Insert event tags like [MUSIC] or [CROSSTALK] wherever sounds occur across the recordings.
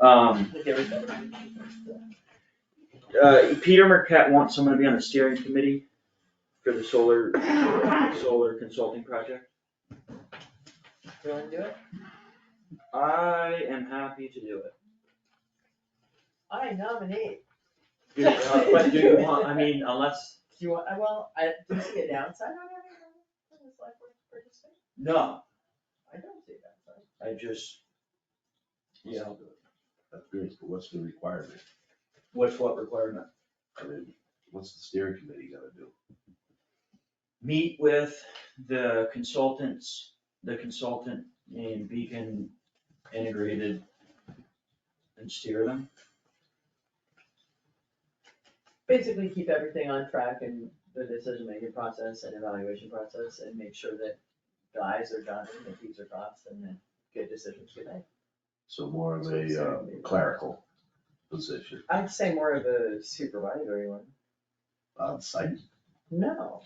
Um, There we go. uh, Peter Marquette wants someone to be on the steering committee for the solar, solar consulting project. You wanna do it? I am happy to do it. I nominate. Do- uh, But do you want, I mean, unless, Do you want, uh, well, I, do you see a downside on having a select board participant? no, I don't see that, so. I just, you know, That's good, but what's the requirement? what's what requirement? I mean, what's the steering committee gotta do? Meet with the consultants, the consultant named Beacon Integrated and steer them. Basically, keep everything on track in the decision-making process and evaluation process and make sure that the i's are dotted and the t's are crossed and then good decisions get made. So more of So the a uh, steering committee. clerical position I'd say more of a supervisory one. on site. No.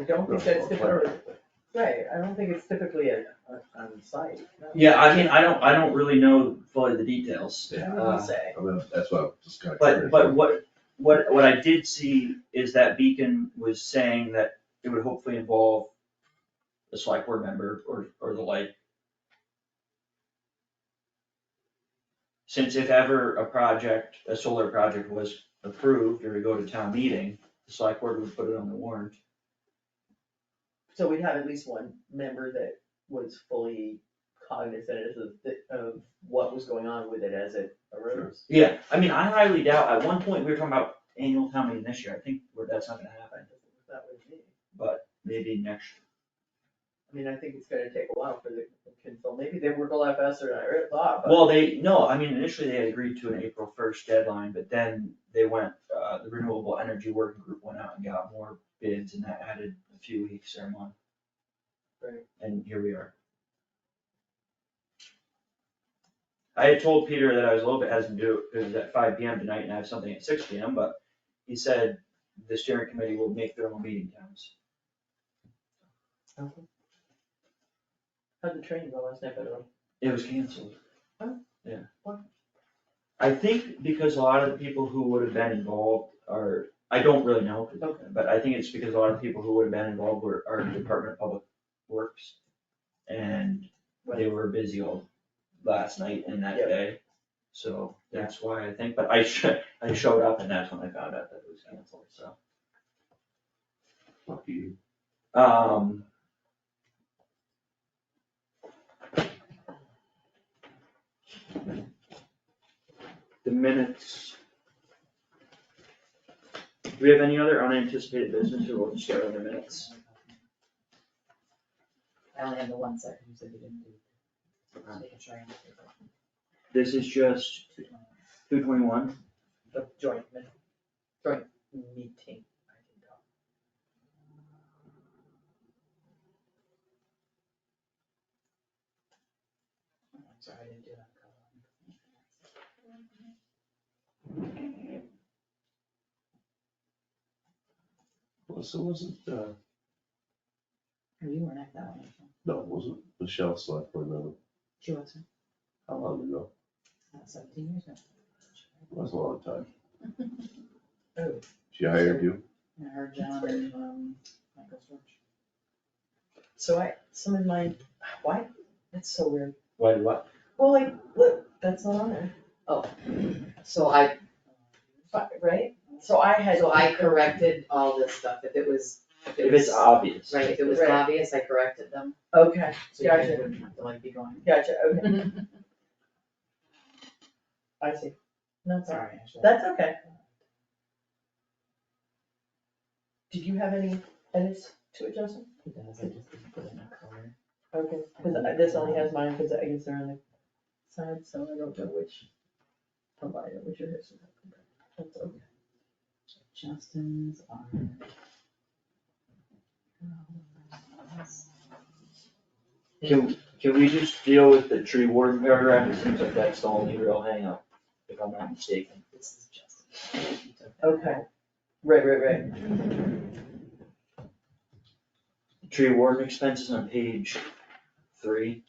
I don't no, think that's typically, clerical. right, I don't think it's typically a, a- on site, no. Yeah, I mean, I don't, I uh, don't really know fully the details. I would say. I mean, that's what I'm just kinda But, curious. but what, what, what I did see is that Beacon was saying that it would hopefully involve the select board member or, or the like. Since if ever a project, a solar project was approved or to go to town meeting, the select board would put it on the warrant. So we'd have at least one member that was fully cognizant of, the- of what was going on with it as it arose. Yeah, I mean, I highly doubt, at one point, we were talking about annual town meeting this year, I think we're- that's not gonna happen, That would be, maybe next. I mean, I think it's gonna take a while for the consult, maybe they work a lot faster than I really thought, but. Well, they, no, I mean, initially they had agreed to an April first deadline, but then they went, uh, the renewable energy working group went out and got more bids and that added a few weeks or a month. Right. And here we are. I had told Peter that I was a little bit hesitant to do it, cause it's at five P M tonight and I have something at six P M, but he said the steering committee will make their own meeting times. How'd the train go last night, by the way? It was canceled. Oh. Yeah. Why? I think because a lot of the people who would have been involved are, I don't really know, Okay. but I think it's because a lot of people who would have been involved were, are Department of Public Works. And they were busy all last night and that Yeah. day, so that's why I think, but I should, I showed up and that's when I found out that it was canceled, so. Fuck you. Um. The minutes. Do we have any other unanticipated business or we'll just go to the minutes? I only have the one second, you said you didn't do. Just making sure I understood that. This is just two twenty-one. The joint, min- joint meeting. I can go. I'm sorry, I didn't do that. Melissa wasn't, uh, Oh, You weren't at that one, actually. no, wasn't Michelle select board member? She wasn't, How long ago? not seventeen years ago. It was a long time. Oh. She hired you? And her, John, and, um, Michael Storch. So I, some of my, why, that's so weird. Why do what? Well, like, look, that's not on there, Oh. So I, Fi- right? So I had. so I corrected all this stuff, if it was, if If it it's was, obvious. right, if it was Right. obvious, I corrected them. Okay, So you guys Gotcha. wouldn't have to like be going, gotcha, okay, [LAUGHS] I see. No, it's all right. sorry, I should. That's okay. Did you have any edits to it, Justin? He does, I just didn't put in a color. Okay, cause I- this only has mine, cause I guess they're on the side, so I don't know which provider, which are his. That's okay. Justin's are. Can, can we just deal with the tree warden paragraph? It seems like that's the only real hangup, if I'm not mistaken. This is Justin. He took that. Okay, right, right, right, Tree warden expenses on page three.